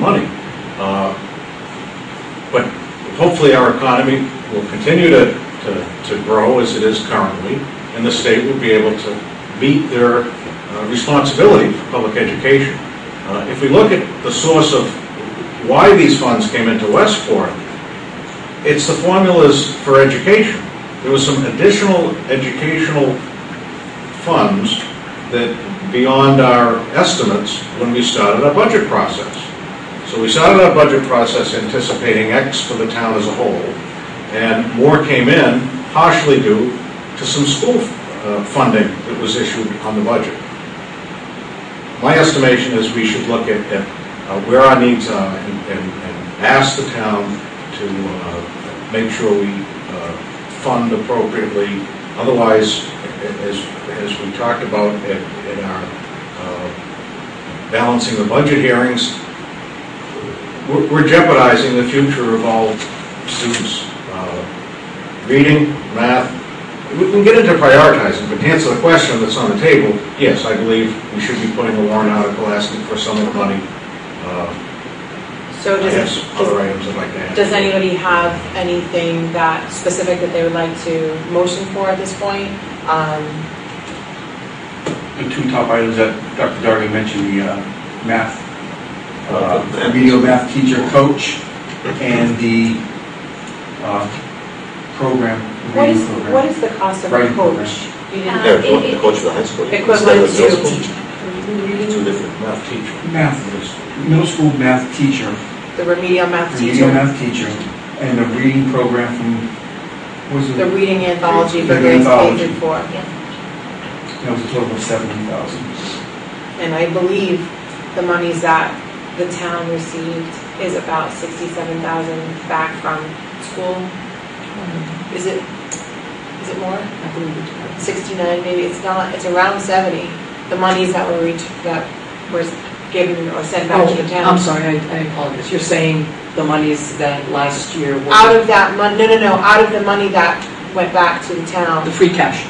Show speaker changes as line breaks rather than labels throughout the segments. money. Uh, But hopefully our economy will continue to, to, to grow as it is currently, and the state will be able to meet their uh, responsibility for public education. Uh, If we look at the source of why these funds came into Westport, it's the formulas for education. There was some additional educational funds that beyond our estimates when we started our budget process. So we started our budget process anticipating X for the town as a whole, and more came in partially due to some school uh, funding that was issued on the budget. My estimation is we should look at, at uh, where our needs are and, and and ask the town to uh, make sure we uh, fund appropriately. Otherwise, a- as, as we talked about at, at our uh, balancing the budget hearings, we're- we're jeopardizing the future of all students. uh, Reading, math, we can get into prioritizing, but to answer the question that's on the table, yes, I believe we should be putting a warrant article asking for some of the money. Uh,
So
I have
does,
some other items I'd like to add.
does anybody have anything that, specific that they would like to motion for at this point? Um,
The two top items that Dr. Darby mentioned, the uh, math, uh, remedial math teacher coach, and the uh, program,
What is,
reading program.
what is the cost of a
Writing program.
coach? You didn't-
Yeah,
Um,
co-
it-
the coach for the high school. yeah.
Equivalent
Instead of
to-
the middle school, Two different.
Math teacher.
Math, middle school math teacher,
The remedial math
remedial
teacher,
math teacher, and the reading program from, what was
the
it?
reading anthology for
The
grades K
anthology.
through four.
That was a total of seventy thousand.
And I believe the monies that the town received is about sixty-seven thousand back from school. Is it, is it more?
I believe it's-
Sixty-nine, maybe, it's not, it's around seventy, the monies that were reached, that was given or sent back to the
Oh,
town.
I'm sorry, I I apologize. You're saying the monies that last year were...
Out of that mon, no, no, no, out of the money that went back to the town,
The free cash.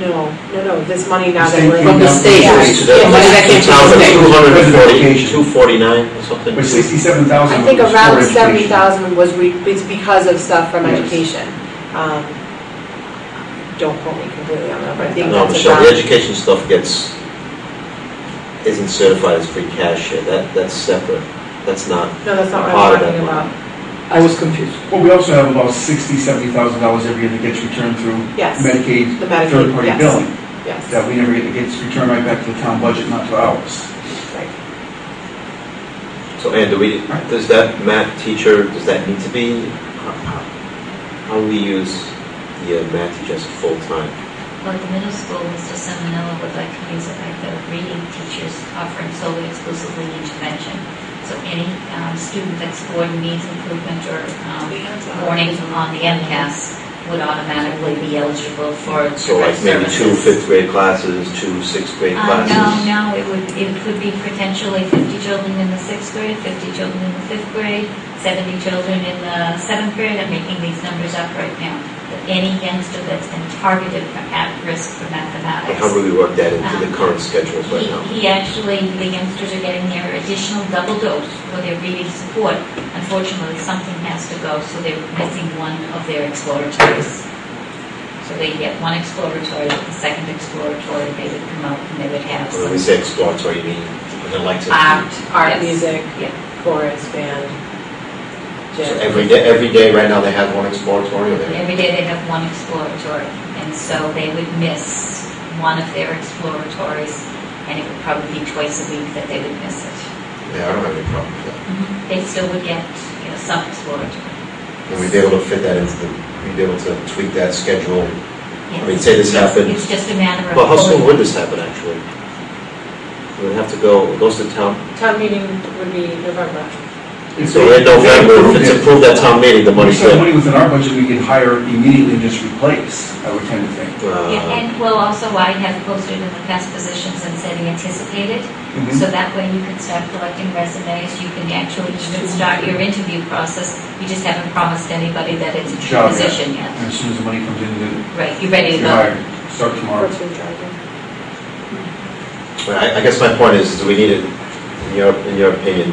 no, no, no, this money now that
State
we're.
From the state.
Yeah.
Increase to that.
Yeah, money that came from the state.
Education.
2,240 249 or something.
But sixty-seven thousand
I
was
think
for
around
education.
seventy thousand was, re- it's because of stuff from
Yes.
education. Um, Don't quote me completely on that, but I think
No,
that's
Michelle, the
around.
education stuff gets, isn't certified as free cash yet. That, that's separate. That's not,
No, that's not what
Part
I'm
of
talking about.
that
I was confused.
Well, we also have about sixty, seventy thousand dollars every year that gets returned through
Yes.
Medicaid,
The Medicaid,
third-party
yes.
billing,
Yes,
that we never get, it gets returned right back to the town budget, not to ours.
right.
so Ann, do we, does that math teacher, does that need to be? how- how- How do we use the uh, math teacher as full-time?
Well, at the middle school, Mr. Seminella would like to use the fact that reading teachers offering solely exclusively intervention. So any um, student that's scoring needs improvement or um, warnings on the MCAS would automatically be eligible for direct services.
So like maybe two fifth grade classes, two sixth grade
Uh,
classes?
No, no, it would, it could be potentially 50 children in the sixth grade, 50 children in the fifth grade, 70 children in the seventh grade, I'm making these numbers up right now. But Any youngster that's been targeted for at risk for
But
mathematics.
How do we work that into the current schedules right now?
He he actually, the youngsters are getting their additional double dose for their reading support. Unfortunately, something has to go, so they're missing one of their exploratories. So they get one exploratory, but the second exploratory, they would come out and they would have
When we say
some
exploratory, you mean, they like to,
art.
Art,
yes.
music,
Yeah.
chorus, band,
so
gym.
every day, every day right now they have one exploratory or they?
Every day they have one exploratory, and so they would miss one of their exploratories, and it would probably be twice a week that they would miss it.
Yeah, I don't have any problem with that.
They still would get, you know, some exploratory.
And we'd be able to fit that into the, we'd be able to tweak that schedule. I mean,
Yes.
say this
It's-
happened-
It's just a matter of.
Well, how soon would this happen, actually? We'd have to go, it goes to town,
Town meeting would be November.
If
so
they-
in November, if
they
it's
approved
approved at town meeting, the
it, If
money's
some
there.
money was in our budget, we could hire immediately and just replace, I would tend to think.
Yeah,
Uh,
And, well, also I have posted in the past positions and said anticipated,
Mm-hmm.
Mhm.
So that way you can start collecting resumes, you can actually even start your interview process. You just haven't promised anybody that it's a true
Job, yeah.
position yet.
And
Mm.
as soon as the money comes in, then
Right, you're ready to
you're
go.
hired, start tomorrow.
What's your driver?
but I, I guess my point is, do we need it, in your, in your opinion,